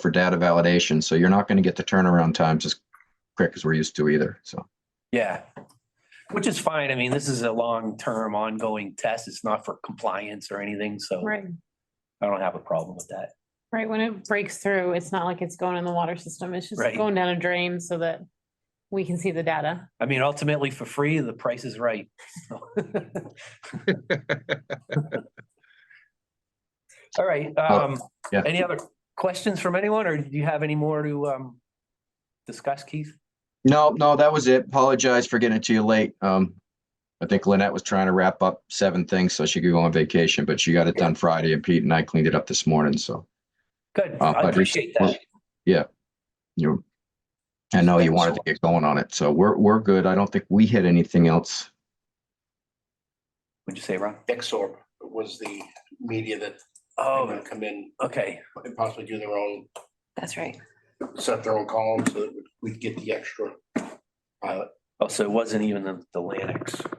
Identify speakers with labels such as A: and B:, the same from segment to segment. A: for data validation, so you're not going to get the turnaround times as quick as we're used to either, so.
B: Yeah. Which is fine. I mean, this is a long-term ongoing test. It's not for compliance or anything, so
C: Right,
B: I don't have a problem with that.
C: right. When it breaks through, it's not like it's going in the water system. It's just
B: Right.
C: going down a drain so that we can see the data.
B: I mean, ultimately for free, the price is right. so. All right, um,
A: Oh, yeah.
B: any other questions from anyone or do you have any more to, um, discuss, Keith?
A: No, no, that was it. Apologize for getting it to you late. Um, I think Lynette was trying to wrap up seven things so she could go on vacation, but she got it done Friday and Pete and I cleaned it up this morning, so
B: Good.
A: Uh, I
B: I
A: just-
B: appreciate that.
A: you I know you wanted to get going on it, so we're, we're good. I don't think we hit anything else.
B: Would you say, Ron?
D: Exor was the media that they
B: Oh,
D: would come in
B: okay.
D: and possibly do their own,
C: That's right.
D: set their own column so that we'd get the extra pilot.
B: Oh, so it wasn't even the, the Lanix.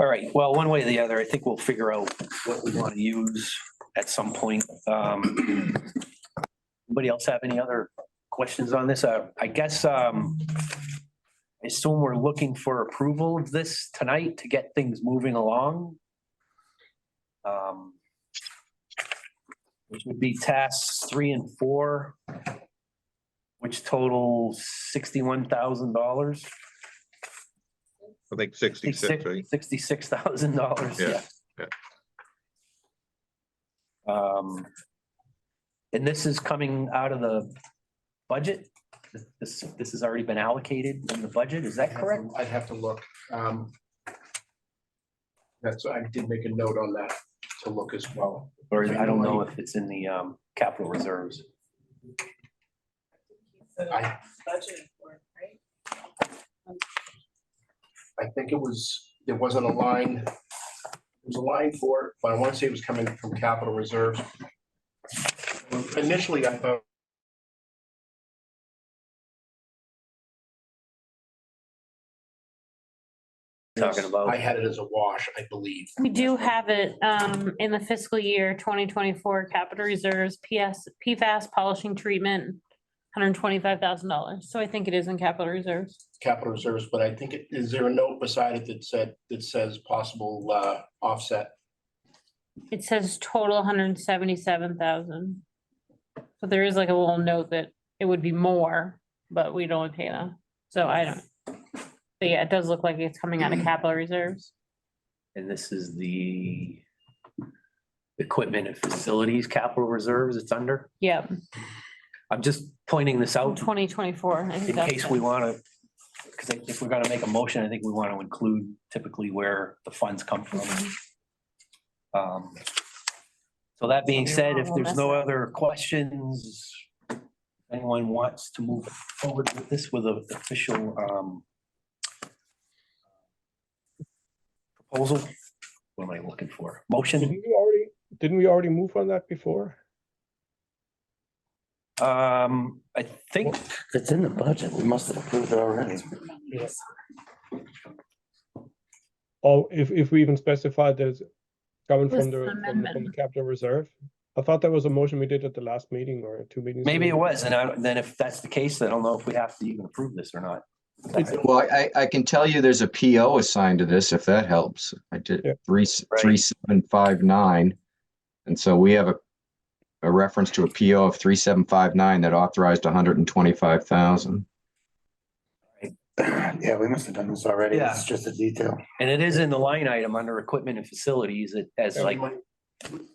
B: All right, well, one way or the other, I think we'll figure out what we want to use at some point. Um, Anybody else have any other questions on this? Uh, I guess, um, I assume we're looking for approval of this tonight to get things moving along. Um, Which would be tasks three and four which totals sixty-one thousand dollars.
E: I think sixty-six, right?
B: Sixty-six thousand dollars, yeah.
E: Yeah, yeah.
B: Um, and this is coming out of the budget? This, this has already been allocated in the budget, is that correct?
D: I'd have to look. um, That's, I did make a note on that to look as well.
B: Or I don't know if it's in the, um, capital reserves.
D: I,
F: budgeted for, it, right?
D: I think it was, there wasn't a line, there was a line for it, but I want to say it was coming from capital reserves. Initially, I thought
B: Talking
D: I
B: about,
D: had it as a wash, I believe.
C: We do have it um in the fiscal year twenty twenty-four capital reserves, PS, PFAS polishing treatment, hundred twenty-five thousand dollars. So I think it is in capital reserves.
D: capital reserves, but I think, it is there a note beside it that said, that says possible uh, offset?
C: It says total hundred and seventy-seven thousand. So there is like a little note that it would be more, but we don't pay them. So I don't. But yeah, it does look like it's coming out of capital reserves.
B: and this is the equipment and facilities capital reserves it's under.
C: Yep,
B: I'm just pointing this out
C: twenty twenty-four.
B: in case we want to, because if we're going to make a motion, I think we want to include typically where the funds come from.
C: Mm-hmm.
B: Um, So that being said, if there's no other questions, anyone wants to move forward with this with an official um, proposal? What am I looking for? Motion?
G: Didn't we already, didn't we already move on that before?
B: Um, I think,
H: It's in the budget. We must have approved it already.
G: Or Oh, if, if we even specified that it's coming
C: With
G: from the, from the- from the
C: amendment.
G: capital reserve? I thought that was a motion we did at the last meeting or two meetings.
B: maybe it
G: ago.
B: was, and I- then if that's the case, then I don't know if we have to even approve this or not.
A: Well, I, I can tell you there's a PO assigned to this, if that helps. I did
G: Yeah.
A: three,
B: Right.
A: three, seven, five, nine. And so we have a, a reference to a PO of three, seven, five, nine that authorized hundred and twenty-five thousand.
H: Yeah, we must have done this already. It's just a detail.
B: And it is in the line item under equipment and facilities it- as
D: So we
B: like,
D: might-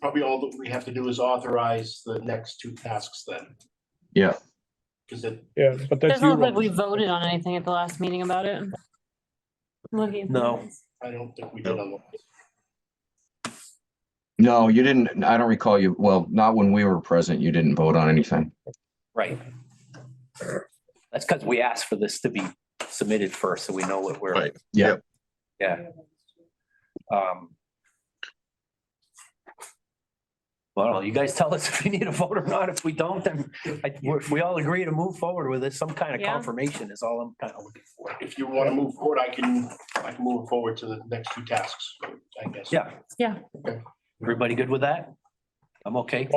D: Probably all that we have to do is authorize the next two tasks then.
A: Yeah.
D: Because it,
G: Yeah, but that's.
C: Doesn't look
G: Euro.
C: like we voted on anything at the last meeting about it. Looking.
B: No.
D: I don't think we did on the
A: No, you didn't, I don't recall you, well, not when we were present, you didn't vote on anything.
B: right. That's because we asked for this to be submitted first, so we know what we're,
E: Right.
A: Yeah,
B: um. Well, you guys tell us if we need a vote or not. If we don't, then I, if we all agree to move forward with this, some kind of
C: Yeah.
B: confirmation is all I'm kind of looking for.
D: If you want to move forward, I can, I can move forward to the next two tasks, I guess.
B: Yeah.
C: Yeah.
B: Everybody good with that? I'm okay.